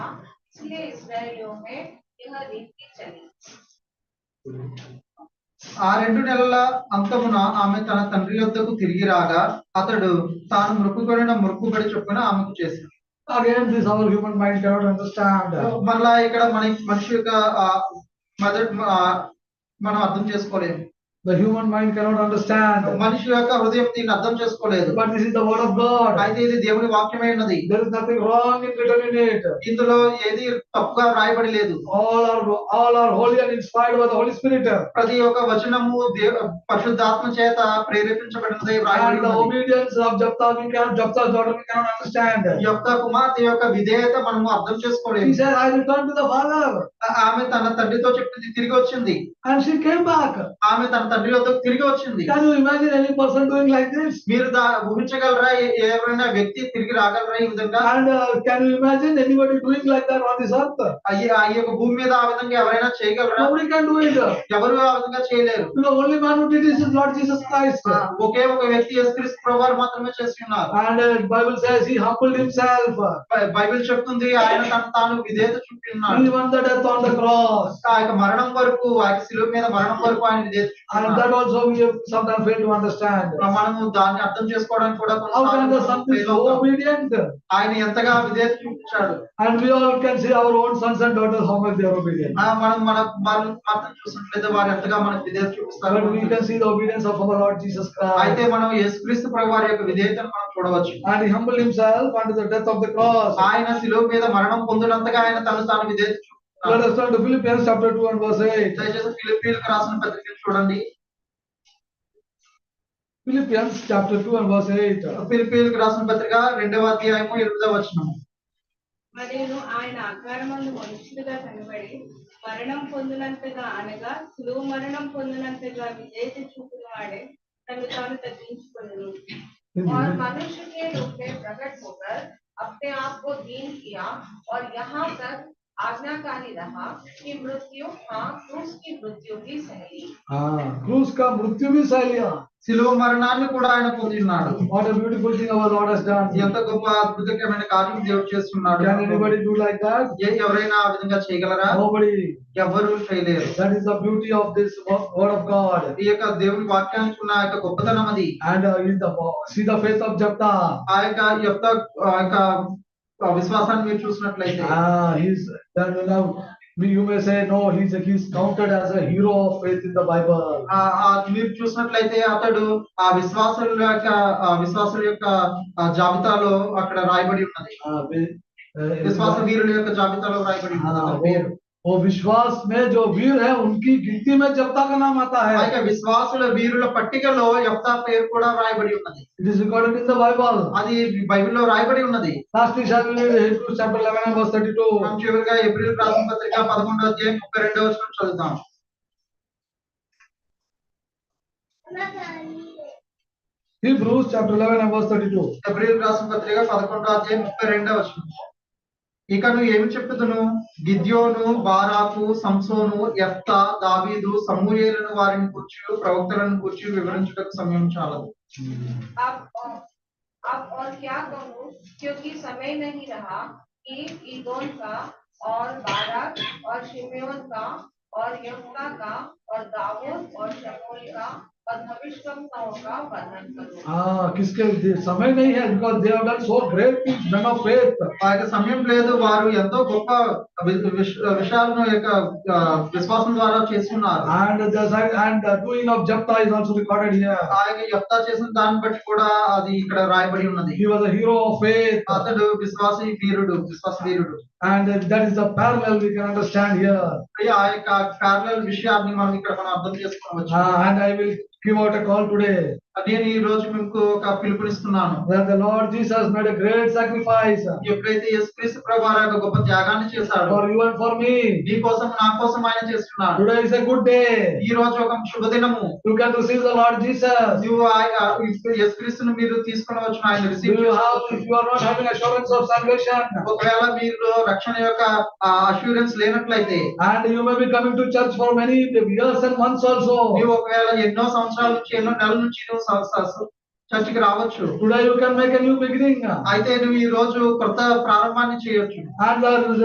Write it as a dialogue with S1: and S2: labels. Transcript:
S1: इसलिए इसराइलियों में यह रीति चली
S2: ఆ రెండు నెలల అంతమున ఆమె తన తండ్రి వద్దకు తిరిగి రాగా అతడు తాను మృక్కుకొనిన మృక్కుబడి చొప్పున ఆమెకు చేసింది
S3: Again, this our human mind cannot understand.
S2: మళ్ళా ఇక్కడ మన మనిషి యొక్క ఆ, మొదటి ఆ, మనం అర్థం చేసుకోలేము
S3: The human mind cannot understand.
S2: మనిషి యొక్క హృదయం దీన్ని అర్థం చేసుకోలేదు
S3: But this is the word of God.
S2: అయితే ఇది దేవుని వాక్యమై ఉన్నది
S3: There is nothing wrong in written in it.
S2: ఇందులో ఏది తప్పుగా వ్రాయబడి లేదు
S3: All are all are holy and inspired by the Holy Spirit.
S2: ప్రతి ఒక్క వచనము దేవ పరిశుద్ధాత్మ చేత ప్రేరేపించబడినది వ్రాయబడి
S3: And the
S2: ఉన్నది.
S3: obedience of Japta, we cannot Japta daughter, we cannot
S2: ఈ
S3: understand.
S2: యొక్క కుమార్తె యొక్క విధేయత మనము అర్థం
S3: He
S2: చేసుకోలేదు
S3: said, I return to the father.
S2: ఆ- ఆమె తన తండ్రితో చెప్పింది తిరిగి వచ్చింది
S3: And she came back.
S2: ఆమె తన తండ్రి వద్దకు తిరిగి వచ్చింది
S3: Can you imagine any person doing like this?
S2: మీరు దా ఊహించగలరా ఏ- ఎవరైనా వ్యక్తి తిరిగి రాగలరా ఈ విధంగా
S3: And uh, can you imagine anybody doing like that on this earth?
S2: అయ్యి- ఆ యొక్క భూమి మీద ఆ విధంగా ఎవరైనా చేయగలరా
S3: Nobody can do it. The
S2: ఎవరు ఆ విధంగా చేయలేరు
S3: only man who did this is Lord Jesus Christ.
S2: ఆ, ఒకే ఒక వ్యక్తి యేసుక్రీస్తు ప్రభు వారు మాత్రమే చేసి ఉన్నారు
S3: And uh, Bible says he humbled himself.
S2: బై- బైబిల్ చెప్తుంది ఆయన తన తాను విధేయత చూపి
S3: He
S2: ఉన్నాడు
S3: won the death on the cross.
S2: ఆ యొక్క మరణం వరకు ఆ యొక్క శిలువ మీద మరణం వరకు ఆయన విధేయత చూపి
S3: And
S2: ఉన్నాడు.
S3: that also we have sometimes failed to understand.
S2: మనము దాన్ని అర్థం చేసుకోవడానికి కూడా
S3: How can
S2: కొన్నిసార్లు
S3: the son be
S2: fail
S3: so
S2: అవుతాం.
S3: obedient?
S2: ఆయన ఎంతగా విధేయత చూపించాడు
S3: And we all can see our own sons and daughters how much they are obedient.
S2: ఆ, మనం మన కుమారులను మాత్రం చూసినట్లయితే వారు ఎంతగా మనకు విధేయత చూపిస్తారు
S3: But we can see the obedience of our Lord Jesus
S2: అయితే
S3: Christ.
S2: మనం యేసుక్రీస్తు ప్రభు వారి యొక్క విధేయతను మనం చూడవచ్చు
S3: And he humbled himself under the death of the cross.
S2: ఆయన శిలువ మీద మరణం పొందినంతగా ఆయన తను తాను విధేయత
S3: Let
S2: చూపుతున్నాడు.
S3: us turn to Philippians chapter 2 and verse 8.
S2: దయచేసి ఫిలిప్పీలకు రాసిన పత్రికను చూడండి
S3: Philippians chapter 2 and verse 8.
S2: ఫిలిప్పీలకు రాసిన పత్రిక రెండవ అధ్యాయము ఎనిమిదవ వచనము
S1: మరియు ఆయన ఆకారమందు మనుషులుగా కనబడి మరణం పొందినంతగా అనగా సులువు మరణం పొందినంతగా విజేత చూపిన వాడే తను తాను तग्గించుకొను
S3: हाँ
S1: और मनुष्य के रूप में प्रकट होकर अपने आप को दीन किया और यहाँ तक आज्ञाकारी रहा कि मृत्यु हाँ क्रूस की मृत्यु भी सहली
S3: Ah, Cruz ka mrityu bhi sahi liya.
S2: శిలువ మరణాన్ని కూడా ఆయన పొంది ఉన్నాడు
S3: What a beautiful thing our Lord has done.
S2: ఎంత గొప్ప అద్భుతకరమైన కార్యం దేవుడు చేస్తున్నాడు
S3: Can anybody do like that?
S2: ఏ- ఎవరైనా ఆ విధంగా చేయగలరా
S3: Nobody.
S2: ఎవరు చేయలేరు
S3: That is the beauty of this wo- word of God.
S2: ఈ యొక్క దేవుని వాక్యానికి ఉన్న ఆ యొక్క గొప్పతనం అది
S3: And uh, in the see the faith of Japta.
S2: ఆ యొక్క యొక్క ఆ యొక్క విశ్వాసాన్ని మీరు చూసినట్లయితే
S3: Ah, he's then you know we- you may say no, he's he's counted as a hero of faith in the Bible.
S2: ఆ ఆ మీరు చూసినట్లయితే అతడు ఆ విశ్వాసుల యొక్క ఆ విశ్వాసుల యొక్క ఆ జాబితాలో అక్కడ రాయబడి ఉన్నది
S3: Ah, we- uh,
S2: విశ్వాస వీరుల యొక్క జాబితాలో రాయబడి ఉన్నది
S3: हाँ,
S2: అతని పేరు
S3: वो, वो विश्वास में जो वीर है उनकी गिनती में जप्ता का नाम आता
S2: ఆ
S3: है
S2: యొక్క విశ్వాసుల వీరుల పట్టికలో యొక్క పేరు కూడా రాయబడి ఉన్నది
S3: it is recorded in the Bible
S2: అది బైబిల్లో రాయబడి ఉన్నది
S3: लास्टली शायद हिब्रूज चैप्टर 11 and verse 32
S2: మనం చివరిగా ఏప్రిల్ రాసిన పత్రిక పదకొंडవ అధ్యాయం ముప్పై రెండవ వచనం చదువుతాం
S3: Hebrews chapter 11 and verse 32
S2: ఏప్రిల్ రాసిన పత్రిక పదకొండవ అధ్యాయం ముప్పై రెండవ వచనం ఇక నువ్వు ఏమి చెప్పుదును గిద్యోను బారాకు సంసోను ఎఫ్తా దావీదు సమూయేలను వారిని కూర్చు ప్రవక్తలను కూర్చు వివరించుటకు సమయం చాలదు
S1: अब और- अब और क्या कहूँ क्योंकि समय नहीं रहा कि ईगोन का और बारक और शिमयोन का और यमुना का और दाऊद और शमूल का और भविष्यवक्ताओं का वर्णन करूँ
S3: हाँ किसके लिए? समय नहीं है because they have done so great things men of faith
S2: ఆ యొక్క సమయం లేదు వారు ఎంతో గొప్ప వి- విష- విషయాలను యొక్క ఆ, విశ్వాసం ద్వారా చేస్తున్నారు
S3: and the and the doing of Japta is also recorded here
S2: ఆ యొక్క యెఫ్తా చేసిన దాన్ని బట్టి కూడా అది ఇక్కడ రాయబడి ఉన్నది
S3: he was a hero of faith
S2: అతడు విశ్వాసి వీరుడు విశ్వాస వీరుడు
S3: and that is the parallel we can understand here
S2: ఆ యొక్క ప్యారలల్ విషయాన్ని మనం ఇక్కడ మనం అర్థం చేసుకోవచ్చు
S3: Ah, and I will give out a call today
S2: నేను ఈ రోజు మీకు ఒక పిలుపునిస్తున్నాను
S3: that the Lord Jesus made a great sacrifice
S2: ఎప్పుడైతే యేసుక్రీస్తు ప్రభు వారు ఆ యొక్క గొప్ప త్యాగాన్ని చేశాడు
S3: for you and for me.
S2: నీ కోసం నా కోసం ఆయన చేస్తున్నాడు
S3: Today is a good day.
S2: ఈ రోజు ఒక శుభదినము
S3: You can receive the Lord Jesus.
S2: నువ్వు ఆ యొక్క యేసుక్రీస్తును మీరు తీసుకునవచ్చు ఆయన
S3: You
S2: receive
S3: will have, if you are not having assurance of salvation,
S2: ఒకవేళ మీరు రక్షణ యొక్క అష్యూరెన్స్ లేనట్లయితే
S3: and you may be coming to church for many years and months also.
S2: నువ్వు ఒకవేళ ఎన్నో సంవత్సరాల నుంచి ఎన్నో నెలల నుంచి నువ్వు స- స- స- చర్చికి రావచ్చు
S3: Today you can make a new beginning,
S2: అయితే నువ్వు ఈ రోజు కొత్త ప్రారంభాన్ని చేయొచ్చు
S3: and the